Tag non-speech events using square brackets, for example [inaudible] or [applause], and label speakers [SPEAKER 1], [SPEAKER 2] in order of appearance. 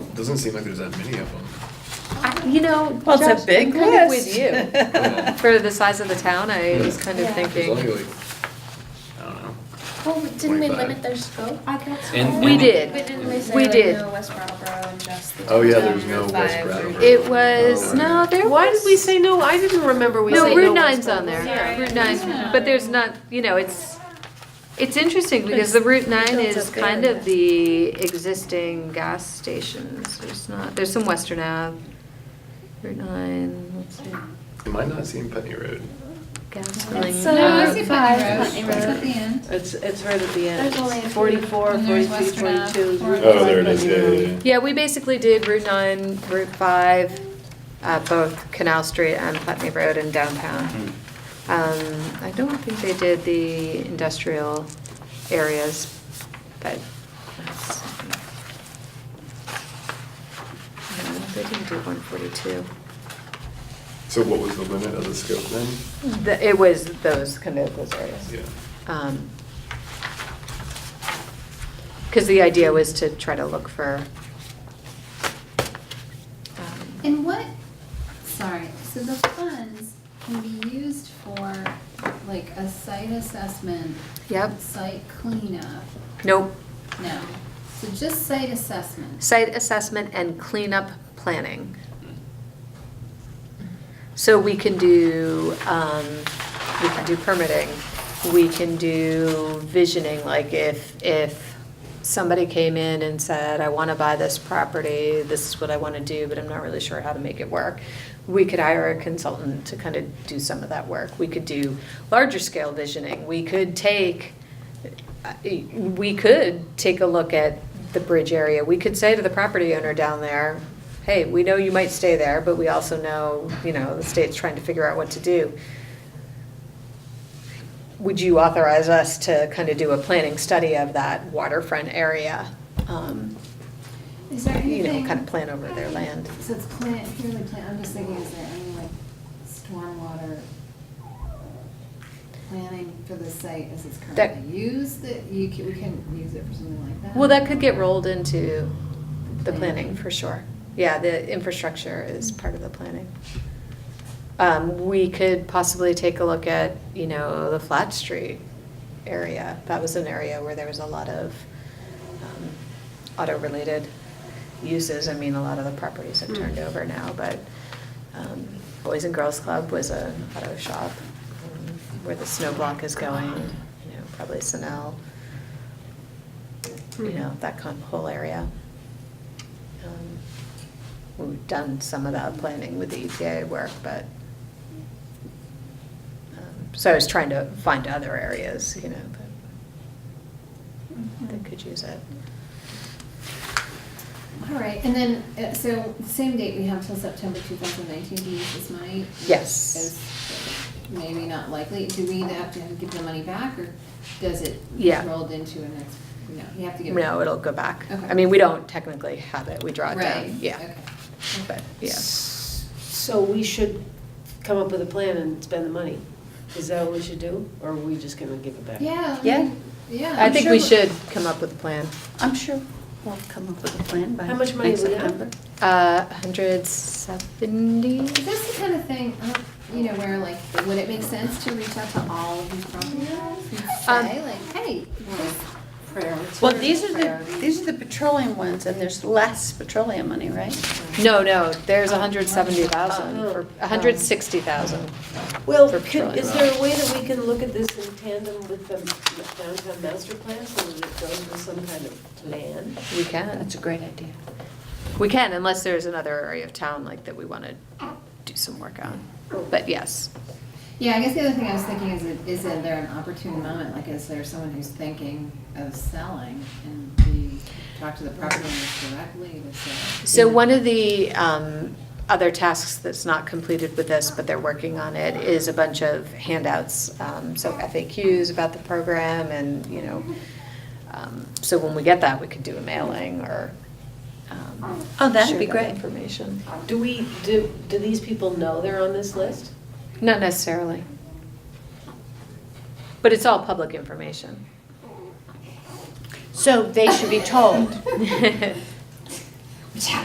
[SPEAKER 1] Doesn't seem like there's that many of them.
[SPEAKER 2] I- You know,
[SPEAKER 3] Well, it's a
[SPEAKER 2] Josh, I'm
[SPEAKER 3] big
[SPEAKER 2] kind of with
[SPEAKER 3] list. [laughs]
[SPEAKER 2] you.
[SPEAKER 1] Well,
[SPEAKER 2] [laughs] For the size of the town, I was kind of
[SPEAKER 3] Yeah.
[SPEAKER 1] There's only
[SPEAKER 2] thinking,
[SPEAKER 1] like, I don't know.
[SPEAKER 4] Well, didn't we
[SPEAKER 1] 25.
[SPEAKER 4] limit their scope?
[SPEAKER 5] Uh,
[SPEAKER 1] And-
[SPEAKER 2] We
[SPEAKER 1] and-
[SPEAKER 2] did.
[SPEAKER 4] We didn't we say
[SPEAKER 2] We
[SPEAKER 4] like
[SPEAKER 2] did.
[SPEAKER 4] no West Brattleboro and just the.
[SPEAKER 1] Oh, yeah,
[SPEAKER 4] downtown
[SPEAKER 1] there's no
[SPEAKER 4] Route
[SPEAKER 1] West
[SPEAKER 4] five or-
[SPEAKER 1] Brattleboro.
[SPEAKER 2] it was,
[SPEAKER 1] Oh,
[SPEAKER 2] no, there was.
[SPEAKER 3] Why did we say no? I didn't remember we
[SPEAKER 2] No,
[SPEAKER 3] said
[SPEAKER 2] Route
[SPEAKER 3] no.
[SPEAKER 2] nine's on there,
[SPEAKER 4] Sorry.
[SPEAKER 2] Route nine, but there's not, you know, it's, it's interesting because the Route nine
[SPEAKER 3] built
[SPEAKER 2] is
[SPEAKER 3] up
[SPEAKER 2] kind
[SPEAKER 3] area.
[SPEAKER 2] of the existing gas stations, there's not, there's some Western Ave. Route nine, let's see,
[SPEAKER 1] It might not seem Penny Road.
[SPEAKER 2] gas filling.
[SPEAKER 5] It's,
[SPEAKER 4] So,
[SPEAKER 5] No,
[SPEAKER 2] Uh,
[SPEAKER 5] I see
[SPEAKER 2] five.
[SPEAKER 5] Putney Road. It's at the end.
[SPEAKER 3] It's, it's right at the end.
[SPEAKER 4] There's only a few.
[SPEAKER 3] 44,
[SPEAKER 5] And there's
[SPEAKER 3] 42,
[SPEAKER 5] Western Ave,
[SPEAKER 3] 42.
[SPEAKER 5] or-
[SPEAKER 6] Oh, there it is, yeah, yeah, yeah.
[SPEAKER 2] Yeah, we basically did Route 9, Route 5, uh, both Canal Street and Putney Road and downtown. Um, I don't think they did the industrial areas, but. that's- No, They didn't do 142.
[SPEAKER 1] So what was the limit of the scope then?
[SPEAKER 2] The- It was those, kind of those areas. Um,
[SPEAKER 1] Yeah.
[SPEAKER 2] Because the idea was to try to look for. um,
[SPEAKER 5] And what, sorry, so the funds can be used for like a site assessment.
[SPEAKER 2] Yep.
[SPEAKER 5] Site cleanup,
[SPEAKER 2] Nope.
[SPEAKER 5] no, so just site assessment.
[SPEAKER 2] Site assessment and cleanup planning. So we can do, um, we can do permitting, we can do visioning, like if, if somebody came in and said, I wanna buy this property, this is what I wanna do, but I'm not really sure how to make it work. We could hire a consultant to kind of do some of that work. We could do larger scale visioning. We could take, we could take a look at the bridge area. We could say to the property owner down there, hey, we know you might stay there, but we also know, you know, the state's trying to figure out what to do. Would you authorize us to kind of do a planning study of that waterfront area? Um,
[SPEAKER 5] Is there
[SPEAKER 2] You
[SPEAKER 5] anything?
[SPEAKER 2] know, kind of plan over their land.
[SPEAKER 5] So it's plant, purely plant, I'm just thinking, is there any like stormwater uh, planning for the site as it's
[SPEAKER 2] That-
[SPEAKER 5] currently used, that you can, we can use it for something like that?
[SPEAKER 2] Well, that could get rolled into the
[SPEAKER 5] Planning.
[SPEAKER 2] planning, for sure. Yeah, the infrastructure is part of the planning. Um, we could possibly take a look at, you know, the Flat Street area. That was an area where there was a lot of, um, auto-related uses. I mean, a lot of the properties have turned over now, but, um, Boys and Girls Club was an auto shop um, where the snow block is going, you know, probably Sunel you know, that kind of whole area. Um, We've done some of that planning with the EPA work, but, um, so I was trying to find other areas, you know, that,
[SPEAKER 5] Mm.
[SPEAKER 2] that could use it.
[SPEAKER 5] All right, and then, uh, so same date we have till September two thousand nineteen to use this money?
[SPEAKER 2] Yes.
[SPEAKER 5] Is Maybe not likely, do we have to give the money back, or does it
[SPEAKER 2] Yeah.
[SPEAKER 5] get rolled into a next, no, you have to give it?
[SPEAKER 2] No, it'll go back. I
[SPEAKER 5] Okay.
[SPEAKER 2] mean, we don't technically have it, we draw it
[SPEAKER 5] Right,
[SPEAKER 2] down,
[SPEAKER 5] okay.
[SPEAKER 2] yeah, but, yeah.
[SPEAKER 3] So we should come up with a plan and spend the money. Is that what we should do, or are we just gonna give it back?
[SPEAKER 5] Yeah, I
[SPEAKER 7] Yeah.
[SPEAKER 5] mean, yeah.
[SPEAKER 2] I
[SPEAKER 7] I'm
[SPEAKER 2] think
[SPEAKER 7] sure
[SPEAKER 2] we
[SPEAKER 7] we-
[SPEAKER 2] should come up with a plan.
[SPEAKER 7] I'm sure we'll come up with a plan by
[SPEAKER 3] How much money
[SPEAKER 7] next
[SPEAKER 3] we have?
[SPEAKER 7] September.
[SPEAKER 2] Uh, hundred seventy?
[SPEAKER 5] Is this the kind of thing, uh, you know, where like, would it make sense to reach out to all of these property owners and
[SPEAKER 2] Um,
[SPEAKER 5] say like, hey,
[SPEAKER 3] Priorities.
[SPEAKER 7] Well, these are the, these are the petroleum ones, and there's less petroleum money, right?
[SPEAKER 2] No, no, there's a hundred seventy thousand, for a hundred sixty thousand.
[SPEAKER 3] Well,
[SPEAKER 2] for
[SPEAKER 3] could- is
[SPEAKER 2] petroleum.
[SPEAKER 3] there a way that we can look at this in tandem with the downtown master plan, so that it goes with some kind of plan?
[SPEAKER 2] We can,
[SPEAKER 7] That's a great idea.
[SPEAKER 2] we can, unless there's another area of town like that we want to do some work on. But yes,
[SPEAKER 5] Yeah, I guess the other thing I was thinking is, it- is that there an opportune moment, like is there someone who's thinking of selling and we talk to the property owners directly to say?
[SPEAKER 2] so one of the um, other tasks that's not completed with this, but they're working on it, is a bunch of handouts. um, So FAQs about the program and, you know, um, so when we get that, we could do a mailing or. um,
[SPEAKER 7] Oh, that'd be
[SPEAKER 2] share that
[SPEAKER 7] great.
[SPEAKER 2] Information.
[SPEAKER 3] Do we, do, do these people know they're on this list?
[SPEAKER 2] Not necessarily. But it's all public information. [laughs]
[SPEAKER 7] So they should be told.